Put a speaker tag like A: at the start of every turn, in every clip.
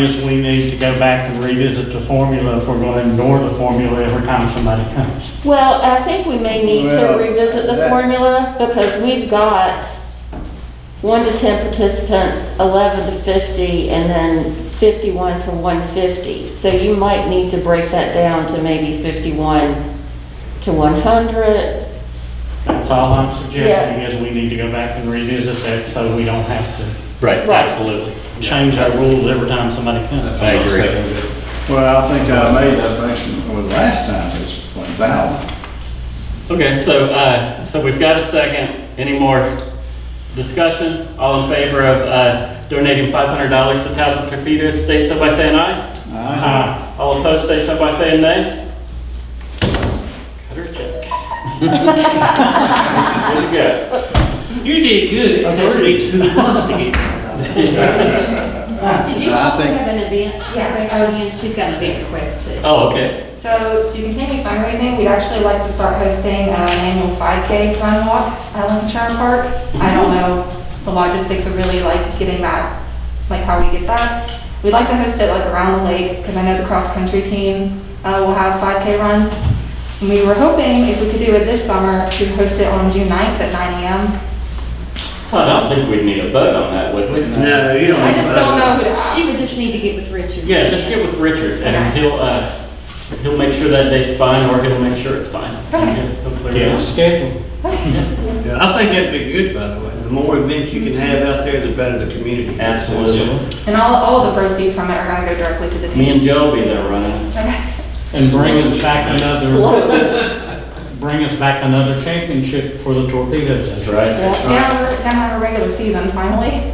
A: is we need to go back and revisit the formula if we're going to ignore the formula every time somebody comes.
B: Well, I think we may need to
C: Well,
B: revisit the
C: that-
B: formula because we've got one to 10 participants, 11 to 50, and then 51 to 150. So you might need to break that down to maybe 51 to 100.
A: That's all I'm suggesting is we need to go back and revisit that so we don't have to
D: Right,
B: Right.
D: absolutely.
A: change our rules every time somebody comes.
D: I agree.
C: Well, I think I made that section, well, last time it was one thousand.
D: Okay, so, uh, so we've got a second. Any more discussion? All in favor of, uh, donating five hundred dollars to Thousand Torpedoes, stay so by saying aye.
A: Aye.
D: All opposed, stay so by saying nay. Cut her a check. There you go.
E: You did good. It took me two months to get.
F: Did you
C: I
F: also
C: think-
F: have an event request? Oh, She's got an event request too.
D: Oh, okay.
G: So to continue fundraising, we'd actually like to start hosting uh, an annual 5K run walk at Lincoln Shire Park. I don't know the logistics of really like getting that, like how we get that. We'd like to host it like around the lake because I know the cross-country team uh, will have 5K runs. And we were hoping if we could do it this summer to host it on June 9th at 9 AM.
D: Todd, I don't think we'd need a vote on that, would we?
E: No, you don't.
G: I just don't know who to
F: She
G: ask.
F: would just need to get with Richard.
D: Yeah, just get with Richard and
G: Okay.
D: he'll, uh, he'll make sure that date's fine or he'll make sure it's fine.
G: Okay.
D: He'll clear it
A: Yeah,
D: out.
A: schedule.
E: I think that'd be good, by the way. The more events you can have out there, the better the community.
D: Absolutely.
G: And all, all of the proceeds from it are going to go directly to the
D: Me
G: team.
D: and Joe will be there running.
G: Okay.
A: And bring us back another, bring us back another championship for the torpedoes.
D: That's right.
B: Yeah.
G: Now, we're gonna have a regular season finally.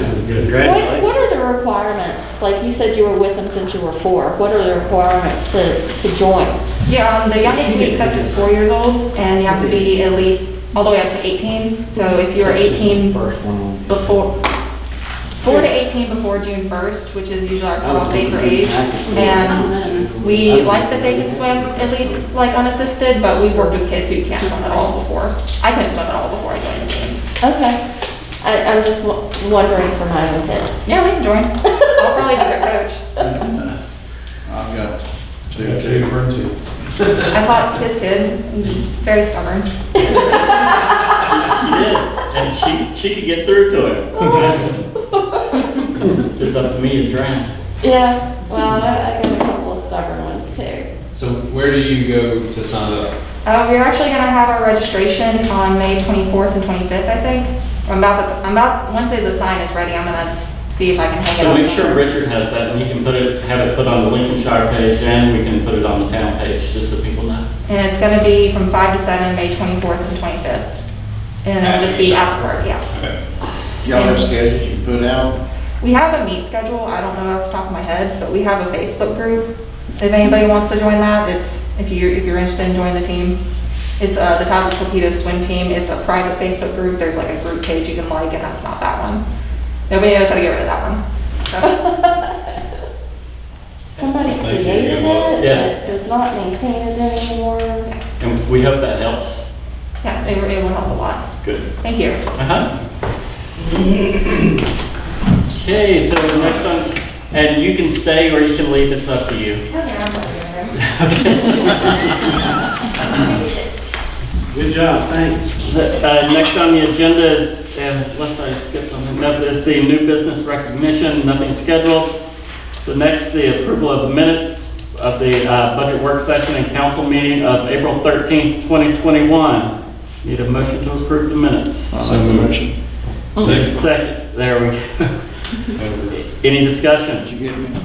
B: What,
E: Congratulations.
B: what are the requirements? Like you said you were with them since you were four. What are the requirements to, to join?
G: Yeah, um, the youngest we accept is four years old, and you have to be at least, all the way up to 18. So if you're 18 before, four to 18 before June 1st, which is usually our cutoff date for age. And we like that they can swim at least, like unassisted, but we've worked with kids who can't swim at all before. I couldn't swim at all before I joined the team.
B: Okay. I, I'm just wo- wondering for my own kids.
G: Yeah, we can join. I'll probably be their coach.
C: I've got two, two,
G: I taught this kid, and he's very stubborn.
D: She did. And she, she could get through to him. It's up to me to drown.
B: Yeah, well, I I got a couple of stubborn ones too.
H: So where do you go to sign up?
G: Uh, we're actually gonna have our registration on May 24th and 25th, I think. I'm about, to- I'm about, once the sign is ready, I'm gonna see if I can hang it
D: So
G: up.
D: make sure
G: somewhere.
D: Richard has that and he can put it, have it put on the Lincolnshire page and we can put it on the town page, just so people know.
G: And it's gonna be from 5 to 7, May 24th and 25th. And it'll just be at the park, yeah.
H: Okay.
C: y'all have schedules you put out?
G: We have a meet schedule, I don't know off the top of my head, but we have a Facebook group. If anybody wants to join that, it's, if you're, if you're interested in joining the team, it's uh, the Towson Torpedo Swim Team. It's a private Facebook group, there's like a group page you can like, and that's not that one. Nobody knows how to get rid of that one. So,
B: Somebody
H: Thank you.
B: created it,
D: Yes.
B: but does not maintain it anymore.
D: And we hope that helps.
G: Yeah, they were able to help a lot.
D: Good.
G: Thank you.
D: Uh-huh. Okay, so the next one, and you can stay or you can leave, it's up to you.
A: Good job, thanks.
D: Uh, Next on the agenda is, uh, unless I skip something, no, is the new business recognition, nothing scheduled. The next, the approval of the minutes of the uh, budget work session and council meeting of April 13th, 2021. Need a motion to approve the minutes.
H: So motion. Second.
D: Second, there we go. Any discussion?
C: Did you get me?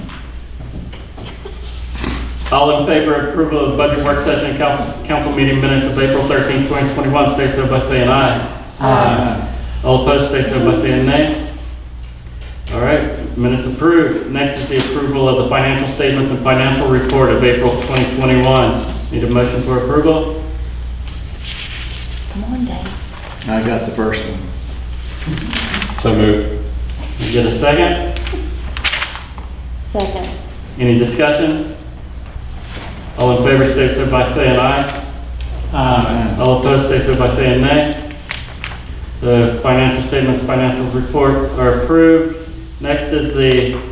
D: All in favor of approval of the budget work session and council, council meeting minutes of April 13th, 2021, stay so by saying aye. All opposed, stay so by saying nay. All right, minutes approved. Next is the approval of the financial statements and financial report of April 2021. Need a motion for approval?
B: Come on, Dave.
C: I got the first one.
H: So moved.
D: Get a second?
B: Second.
D: Any discussion? All in favor, stay so by saying aye.
A: Aye.
D: All opposed, stay so by saying nay. The financial statements, financial report are approved. Next is the